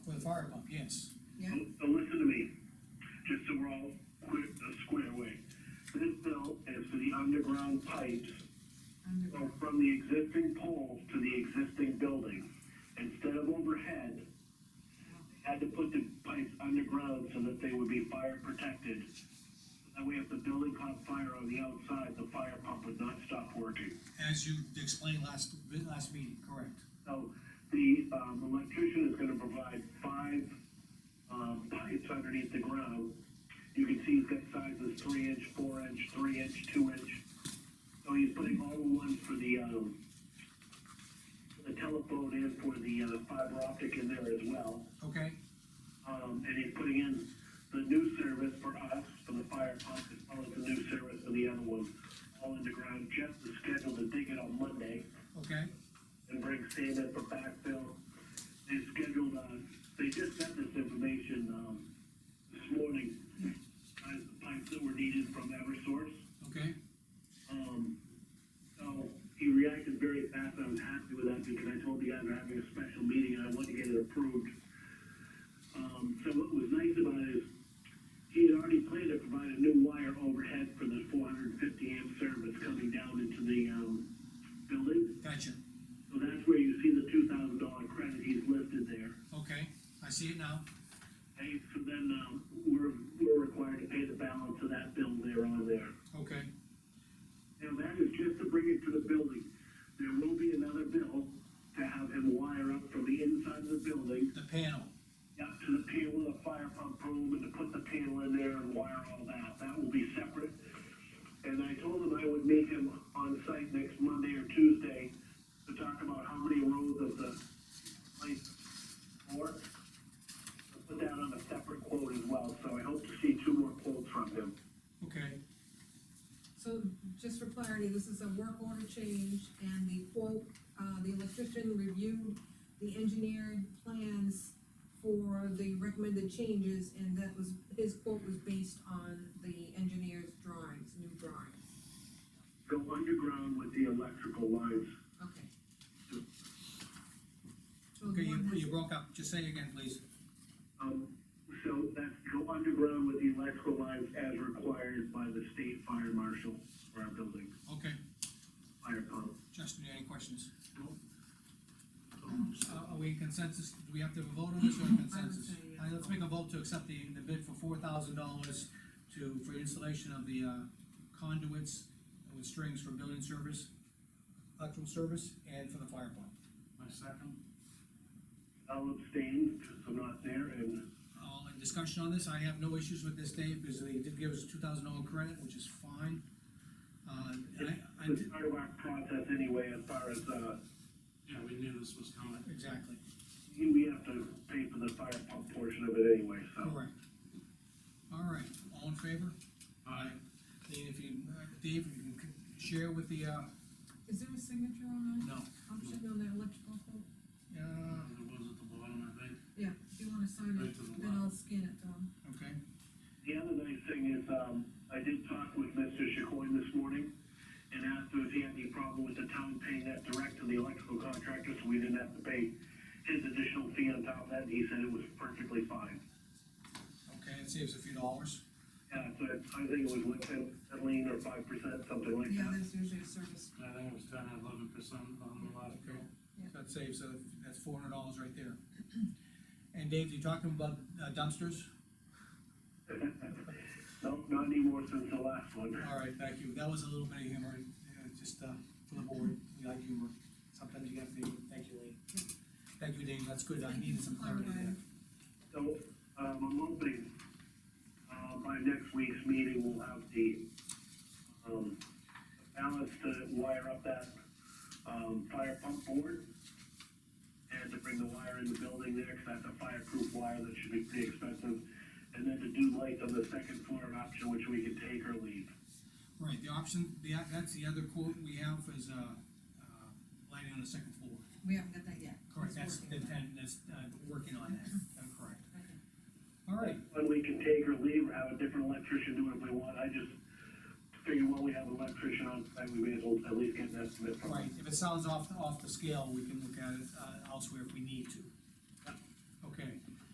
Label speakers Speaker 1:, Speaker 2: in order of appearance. Speaker 1: fire pump, yes.
Speaker 2: Yeah,
Speaker 3: So so listen to me, just so we're all quick, uh, square away. This bill is for the underground pipes
Speaker 2: underground,
Speaker 3: so from the existing pole to the existing building. Instead of overhead, they had to put the pipes underground so that they would be fire protected. That way if the building caught fire on the outside, the fire pump would not stop working.
Speaker 1: As you explained last, last meeting, correct.
Speaker 3: So the, um, electrician is gonna provide five, um, pipes underneath the ground. You can see he's got sizes three inch, four inch, three inch, two inch. So he's putting all the ones for the, um, for the telephone and for the, uh, fiber optic in there as well.
Speaker 1: Okay,
Speaker 3: Um, and he's putting in the new service for us, for the fire pump, as well as the new service for the other one, all underground. Jeff is scheduled to dig it on Monday
Speaker 1: okay,
Speaker 3: and bring sand in for backfill. They scheduled, uh, they just sent this information, um, this morning, as the pipes that were needed from Eversource.
Speaker 1: okay,
Speaker 3: Um, so he reacted very fast, I was happy with that because I told the guys we're having a special meeting and I wanted to get it approved. Um, so what was nice about it is, he had already planned to provide a new wire overhead for the four hundred and fifty amp service coming down into the, um, building.
Speaker 1: gotcha,
Speaker 3: So that's where you see the two thousand dollar credit he's listed there.
Speaker 1: okay, I see it now,
Speaker 3: Hey, so then, um, we're, we're required to pay the balance of that bill there on there.
Speaker 1: okay,
Speaker 3: Now, that is just to bring it to the building. There will be another bill to have him wire up from the inside of the building,
Speaker 1: the panel,
Speaker 3: up to the panel, the fire pump room, and to put the panel in there and wire all that. That will be separate. And I told him I would meet him on site next Monday or Tuesday to talk about how many rows of the place or put that on a separate quote as well, so I hope to see two more quotes from him.
Speaker 1: okay,
Speaker 2: so just for clarity, this is a work order change, and the quote, uh, the electrician reviewed the engineered plans for the recommended changes, and that was, his quote was based on the engineer's drawings, new drawings,
Speaker 3: Go underground with the electrical lines.
Speaker 2: okay. So
Speaker 1: okay,
Speaker 2: the
Speaker 1: you,
Speaker 2: one has-
Speaker 1: you broke up, just say it again, please.
Speaker 3: Um, so that's go underground with the electrical lines as required by the state fire marshal for our building,
Speaker 1: Okay,
Speaker 3: fire pump.
Speaker 1: Justin, any questions?
Speaker 3: Um,
Speaker 1: Uh, are we in consensus, do we have to vote on this or in consensus?
Speaker 2: say yes.
Speaker 1: All right, let's make a vote to accept the, the bid for four thousand dollars to, for installation of the, uh, conduits with strings for building service, electrical service, and for the fire pump.
Speaker 4: My second,
Speaker 3: I'll abstain, because I'm not there, and
Speaker 1: All in discussion on this, I have no issues with this, Dave, because they did give us two thousand dollar credit, which is fine. Uh, I, I,
Speaker 3: it's part of our process anyway, as far as, uh,
Speaker 4: yeah, we knew this was coming.
Speaker 1: exactly,
Speaker 3: we have to pay for the fire pump portion of it anyway, so.
Speaker 1: correct. All right, all in favor?
Speaker 4: Aye.
Speaker 1: Dave, if you, Dave, if you can share with the, uh,
Speaker 2: Is there a signature on
Speaker 1: no,
Speaker 2: that, option on that electrical quote?
Speaker 1: uh,
Speaker 4: It was at the bottom, I think.
Speaker 2: Yeah, if you wanna sign
Speaker 4: Right
Speaker 2: it,
Speaker 4: to the
Speaker 2: then I'll scan it to him,
Speaker 1: okay,
Speaker 3: The other nice thing is, um, I did talk with Mr. Chacoine this morning and asked him if he had any problem with the town paying that direct to the electrical contractor, so we didn't have to pay his additional fee on top of that, and he said it was perfectly fine.
Speaker 1: okay, it saves a few dollars.
Speaker 3: Yeah, so it- I think it was like ten, ten lean or five percent, something like
Speaker 2: yeah,
Speaker 3: that.
Speaker 2: there's usually a service,
Speaker 4: I think it was ten or eleven percent on the last bill.
Speaker 1: That saves, uh, that's four hundred dollars right there. And Dave, you talking about uh, dumpsters?
Speaker 3: Nope, not anymore since the last one.
Speaker 1: All right, thank you, that was a little bit of humor, uh, just, uh, for the board, we like humor, sometimes you have to, thank you, Lee. Thank you, Dave, that's good, I
Speaker 2: Thank you
Speaker 1: needed
Speaker 2: for
Speaker 1: some clarity there.
Speaker 2: clarifying.
Speaker 3: So, um, I'm hoping, uh, by next week's meeting, we'll have the, um, balance to wire up that, um, fire pump board. And to bring the wire in the building there, cause that's a fireproof wire that should be pretty expensive. And then to do lights on the second floor an option, which we can take or leave.
Speaker 1: Right, the option, the, that's the other quote we have is, uh, uh, lighting on the second floor.
Speaker 2: we haven't got that yet.
Speaker 1: Correct, that's,
Speaker 2: He's
Speaker 1: the
Speaker 2: working on
Speaker 1: ten, that's, uh, working on that, that's correct.
Speaker 2: it. Okay.
Speaker 1: All right,
Speaker 3: One we can take or leave, or have a different electrician do it if we want, I just figured while we have an electrician on site, we may as well at least get an estimate from him.
Speaker 1: right, if it sounds off, off the scale, we can look at it, uh, elsewhere if we need to.